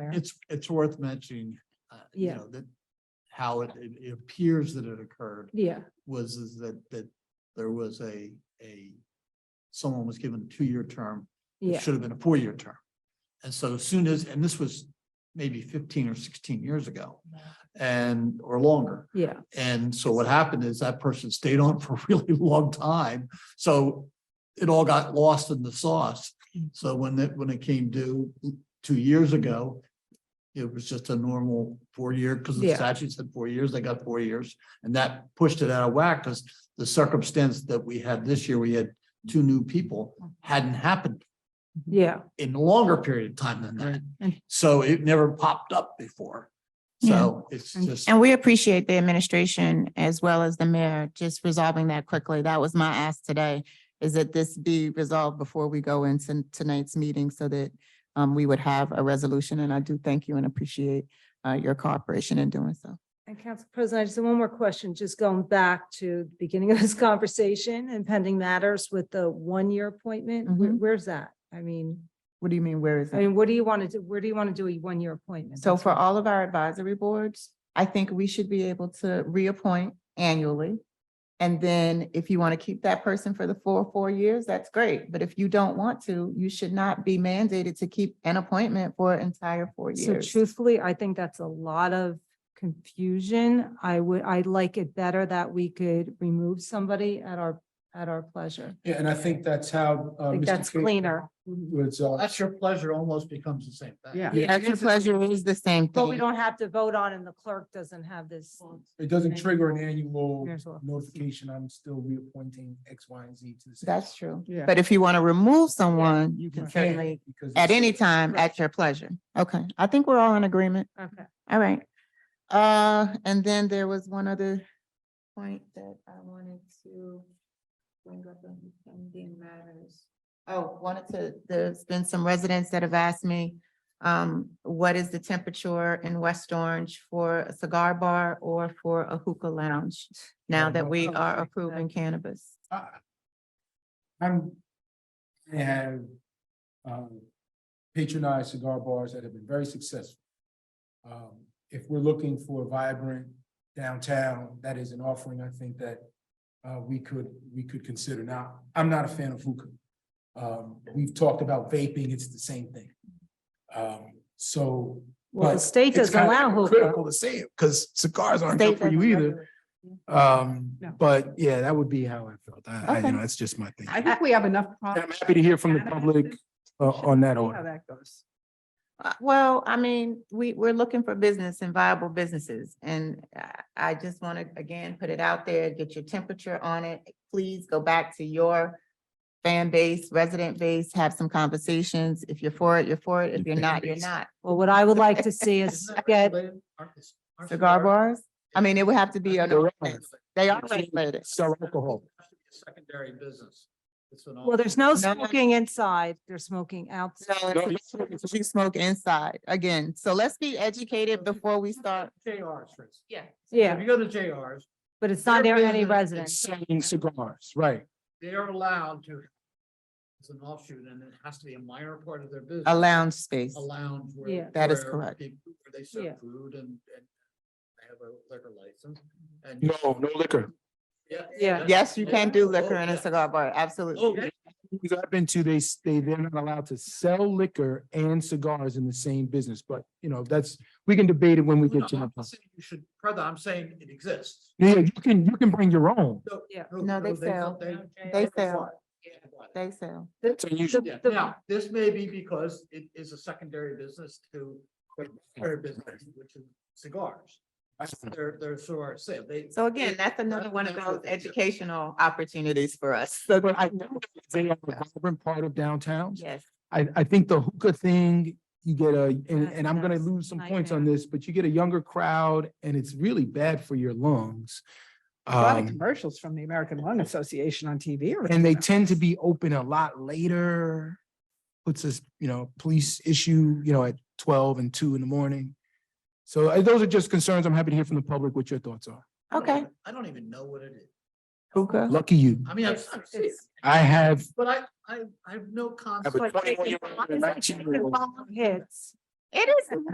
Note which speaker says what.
Speaker 1: there.
Speaker 2: It's, it's worth mentioning, uh, you
Speaker 1: Yeah.
Speaker 2: know, that how it, it it appears that it occurred
Speaker 1: Yeah,
Speaker 2: was is that, that there was a, a someone was given a two-year term. that
Speaker 1: yeah,
Speaker 2: Should have been a four-year term. And so as soon as, and this was maybe fifteen or sixteen years ago and, or longer.
Speaker 1: yeah,
Speaker 2: And so what happened is that person stayed on for a really long time. So it all got lost in the sauce.
Speaker 1: Mm.
Speaker 2: So when it, when it came due two years ago, it was just a normal four year, because the
Speaker 1: Yeah.
Speaker 2: statute said four years, they got four years. And that pushed it out of whack because the circumstance that we had this year, we had two new people
Speaker 1: Mm.
Speaker 2: hadn't happened
Speaker 1: yeah.
Speaker 2: in a longer period of time than that.
Speaker 3: And-
Speaker 2: So it never popped up before. So it's just.
Speaker 3: And we appreciate the administration as well as the mayor just resolving that quickly. That was my ask today, is that this be resolved before we go into tonight's meeting so that um, we would have a resolution. And I do thank you and appreciate uh, your cooperation in doing so.
Speaker 1: And Council President, I just have one more question, just going back to the beginning of this conversation and pending matters with the one-year appointment. Where-
Speaker 3: Mhm.
Speaker 1: Where's that? I mean,
Speaker 3: What do you mean, where is
Speaker 1: I
Speaker 3: it?
Speaker 1: mean, what do you want to do? Where do you want to do a one-year appointment?
Speaker 3: So for all of our advisory boards, I think we should be able to reappoint annually. And then if you want to keep that person for the full four years, that's great. But if you don't want to, you should not be mandated to keep an appointment for an entire four
Speaker 1: So
Speaker 3: years.
Speaker 1: truthfully, I think that's a lot of confusion. I would, I'd like it better that we could remove somebody at our, at our pleasure.
Speaker 4: Yeah, and I think that's how.
Speaker 3: Oh,
Speaker 4: uh,
Speaker 1: I think
Speaker 4: Mr.
Speaker 1: that's
Speaker 4: Cape
Speaker 1: cleaner.
Speaker 4: Was, uh,
Speaker 2: That's your pleasure almost becomes the same thing.
Speaker 5: Yeah.
Speaker 3: The extra pleasure is the same
Speaker 1: But we
Speaker 3: thing.
Speaker 1: don't have to vote on and the clerk doesn't have this.
Speaker 4: it doesn't trigger an annual
Speaker 1: Here's what-
Speaker 4: notification, I'm still reappointing X, Y, and Z to the. same-
Speaker 3: That's true.
Speaker 5: Yeah.
Speaker 3: But if you want to remove someone, you can
Speaker 4: Right.
Speaker 3: certainly,
Speaker 4: Because
Speaker 3: at
Speaker 4: it's-
Speaker 3: any time, at your pleasure. Okay, I think we're all in agreement.
Speaker 1: Okay.
Speaker 3: All right. Uh, and then there was one other point that I wanted to bring up on pending matters. Oh, wanted to, there's been some residents that have asked me, um, what is the temperature in West Orange for a cigar bar or for a hookah lounge? Now that we are approving cannabis.
Speaker 4: I- I'm, I have um, patronized cigar bars that have been very successful. Um, If we're looking for a vibrant downtown, that is an offering, I think that uh, we could, we could consider. Now, I'm not a fan of hookah. Um, We've talked about vaping, it's the same thing. Um, So.
Speaker 1: Well, the
Speaker 4: but
Speaker 1: state
Speaker 4: it's
Speaker 1: doesn't
Speaker 4: kinda
Speaker 1: allow hookah.
Speaker 4: Critical to say it, because cigars aren't
Speaker 3: State
Speaker 4: good for you
Speaker 3: doesn't
Speaker 4: either.
Speaker 3: regulate.
Speaker 4: Um,
Speaker 5: No.
Speaker 4: but yeah, that would be how I felt. I, I,
Speaker 3: Okay.
Speaker 4: you know, that's just my thing.
Speaker 5: I think we have enough.
Speaker 4: I'm happy to hear from the public uh, on that
Speaker 5: How
Speaker 4: order.
Speaker 5: that goes.
Speaker 3: Uh, Well, I mean, we, we're looking for business and viable businesses, and I, I just want to, again, put it out there, get your temperature on it. Please go back to your fan base, resident base, have some conversations. If you're for it, you're for it. If you're not, you're not.
Speaker 1: Well, what I would like to see is get,
Speaker 3: Cigar bars, I mean, it would have to be, an ordinance. they are
Speaker 2: It's-
Speaker 3: regulated.
Speaker 4: Sell alcohol.
Speaker 2: Secondary business. It's an
Speaker 1: well, there's no
Speaker 3: No.
Speaker 1: smoking inside, they're smoking outside.
Speaker 3: So it's- you smoke inside, again, so let's be educated before we start.
Speaker 2: JRs, for instance. If
Speaker 1: Yeah,
Speaker 2: you go to JRs,
Speaker 1: but it's not
Speaker 2: Their
Speaker 1: near
Speaker 2: business
Speaker 1: any
Speaker 2: is
Speaker 1: residence.
Speaker 4: Selling cigars, right.
Speaker 2: they are allowed to. It's an offshoot and it has to be a minor part of their business.
Speaker 3: A lounge space.
Speaker 2: A lounge
Speaker 1: Yeah.
Speaker 2: where.
Speaker 3: That is
Speaker 2: where
Speaker 3: correct.
Speaker 2: people- Where they
Speaker 1: Yeah.
Speaker 2: serve food and, and they have a liquor license and.
Speaker 4: No, no liquor.
Speaker 2: Yeah.
Speaker 1: Yeah.
Speaker 3: Yes, you can do
Speaker 2: Oh,
Speaker 3: liquor in a
Speaker 2: yeah.
Speaker 3: cigar bar,
Speaker 2: Oh,
Speaker 3: absolutely.
Speaker 2: yeah.
Speaker 4: Because I've been to, they, s- they, they're not allowed to sell liquor and cigars in the same business, but you know, that's, we can debate it when we
Speaker 2: No,
Speaker 4: get to
Speaker 2: I'm
Speaker 4: that.
Speaker 2: not saying You should, brother, I'm saying it exists.
Speaker 4: Yeah, you can, you can bring your own.
Speaker 1: Yeah.
Speaker 3: No, they sell. They sell.
Speaker 2: Yeah.
Speaker 3: They sell.
Speaker 4: It's unusual.
Speaker 2: Yeah,
Speaker 1: The-
Speaker 2: now, this may be because it is a secondary business to primary business, which is cigars. They're, they're sort of said, they.
Speaker 3: So again, that's another one of those educational opportunities for us. So,
Speaker 4: But I know they are a vibrant part of downtown.
Speaker 3: yes,
Speaker 4: I, I think the hookah thing, you get a, and,
Speaker 1: That's-
Speaker 4: and I'm gonna
Speaker 1: that's
Speaker 4: lose some points on
Speaker 1: nightmare.
Speaker 4: this, but you get a younger crowd and it's really bad for your lungs.
Speaker 5: A lot of
Speaker 4: Um,
Speaker 5: commercials from the American Lung Association on TV. or
Speaker 4: and they
Speaker 5: something.
Speaker 4: tend to be open a lot later. Puts us, you know, police issue, you know, at twelve and two in the morning. So uh, those are just concerns. I'm happy to hear from the public what your thoughts are.
Speaker 2: I don't
Speaker 3: Okay.
Speaker 2: even- I don't even know what it is.
Speaker 3: hookah.
Speaker 4: Lucky you.
Speaker 2: I mean, I've,
Speaker 1: It's-
Speaker 2: I've seen it,
Speaker 1: it's-
Speaker 4: I have,
Speaker 2: but I, I, I have no concept.
Speaker 4: a 21 year old and a 19 year old.
Speaker 1: Hits.
Speaker 3: It is